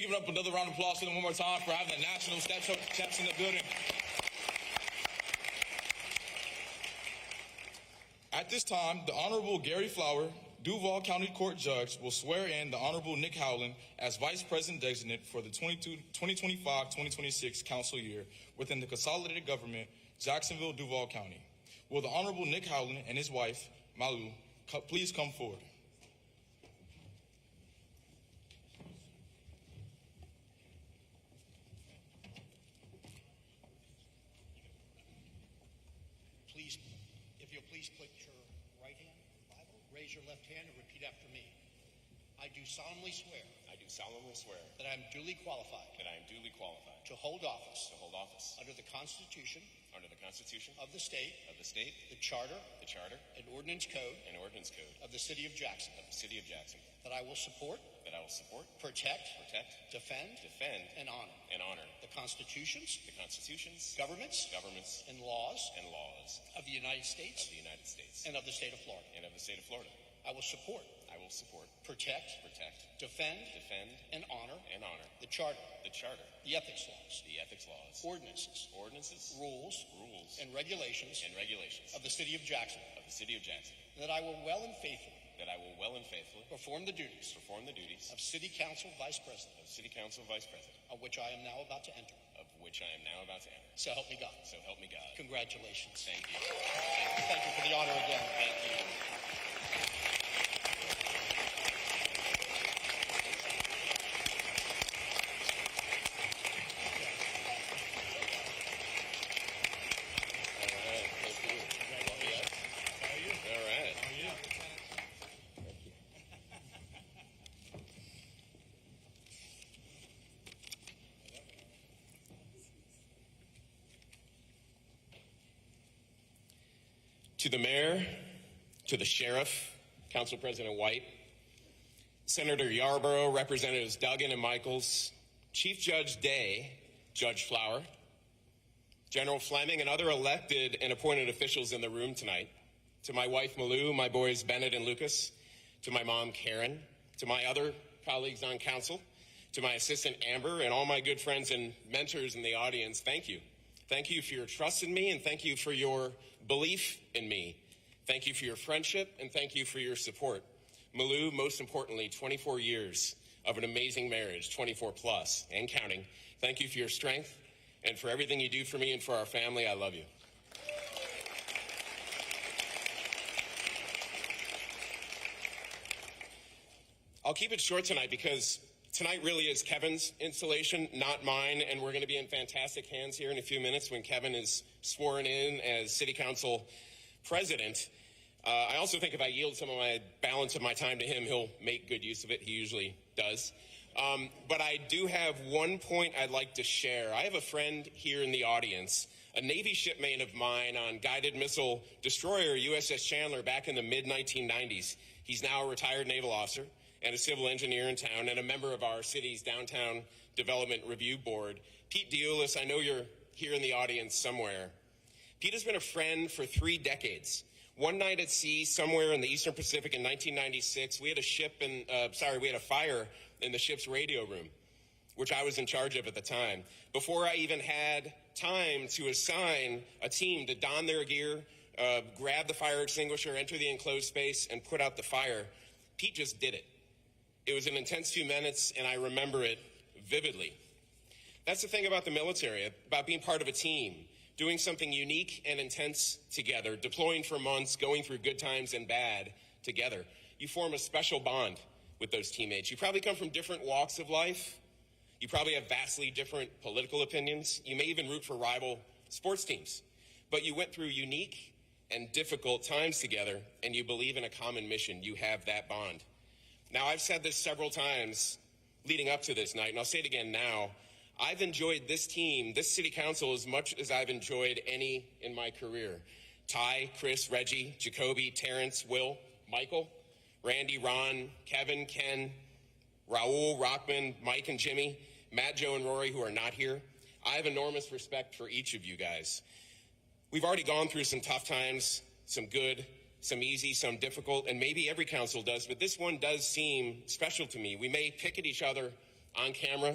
give it up another round of applause to them one more time for having the national steps, steps in the building. At this time, the Honorable Gary Flower, Duval County Court Judge, will swear in the Honorable Nick Howland as Vice President Designate for the 2025-2026 Council Year within the Consolidated Government, Jacksonville, Duval County. Will the Honorable Nick Howland and his wife, Malu, co- please come forward? Please, if you'll please put your right hand in the Bible, raise your left hand and repeat after me. I do solemnly swear I do solemnly swear that I am duly qualified that I am duly qualified to hold office to hold office under the Constitution under the Constitution of the state, of the state, the charter the Charter, and ordinance code and ordinance code of the city of Jackson, of the City of Jackson, that I will support, that I will support, protect, protect, defend, defend, and honor and honor the constitutions, the constitutions, governments, governments, and laws and laws of the United of States the United States and of the state of Florida. and of the state of Florida. I will support, I will support, protect, protect, defend, defend, and honor and honor the charter, the Charter, the ethics laws, the ethics laws, ordinances, ordinances, rules, rules, and regulations and regulations of the City of Jackson, of the City of Jackson, and that I will well and faithfully that I will well and faithfully perform the duties perform the duties of City Council Vice President, of City Council Vice President, on which I am now about to enter. of which I am now about to enter. So help me God. So help me God. Congratulations. Thank you. Thank you for the honor again. Thank you. All right. Thank you. All right. to the mayor, to the sheriff, Council President White, Senator Yarborough, Representatives Duggan and Michaels, Chief Judge Day, Judge Flower, General Fleming, and other elected and appointed officials in the room tonight, to my wife Malou, my boys Bennett and Lucas, to my mom Karen, to my other colleagues on council, to my assistant Amber, and all my good friends and mentors in the audience, thank you. Thank you for your trust in me, and thank you for your belief in me. Thank you for your friendship, and thank you for your support. Malou, most importantly, 24 years of an amazing marriage, 24 plus and counting. Thank you for your strength and for everything you do for me and for our family. I love you. I'll keep it short tonight because tonight really is Kevin's installation, not mine, and we're going to be in fantastic hands here in a few minutes when Kevin is sworn in as City Council President. Uh, I also think if I yield some of my balance of my time to him, he'll make good use of it. He usually does. Um, but I do have one point I'd like to share. I have a friend here in the audience, a Navy shipmate of mine on guided missile destroyer USS Chandler back in the mid 1990s. He's now a retired naval officer and a civil engineer in town and a member of our city's downtown development review board. Pete Deulis, I know you're here in the audience somewhere. Pete has been a friend for three decades. One night at sea, somewhere in the Eastern Pacific in 1996, we had a ship and uh, sorry, we had a fire in the ship's radio room, which I was in charge of at the time. Before I even had time to assign a team to don their gear, uh, grab the fire extinguisher, enter the enclosed space, and put out the fire, Pete just did it. It was an intense few minutes, and I remember it vividly. That's the thing about the military, about being part of a team, doing something unique and intense together, deploying for months, going through good times and bad together. You form a special bond with those teammates. You probably come from different walks of life. You probably have vastly different political opinions. You may even root for rival sports teams. But you went through unique and difficult times together, and you believe in a common mission. You have that bond. Now, I've said this several times leading up to this night, and I'll say it again now. I've enjoyed this team, this city council, as much as I've enjoyed any in my career. Ty, Chris, Reggie, Jacoby, Terrence, Will, Michael, Randy, Ron, Kevin, Ken, Raul, Rockman, Mike, and Jimmy, Matt, Joe, and Rory, who are not here. I have enormous respect for each of you guys. We've already gone through some tough times, some good, some easy, some difficult, and maybe every council does, but this one does seem special to me. We may pick at each other on camera.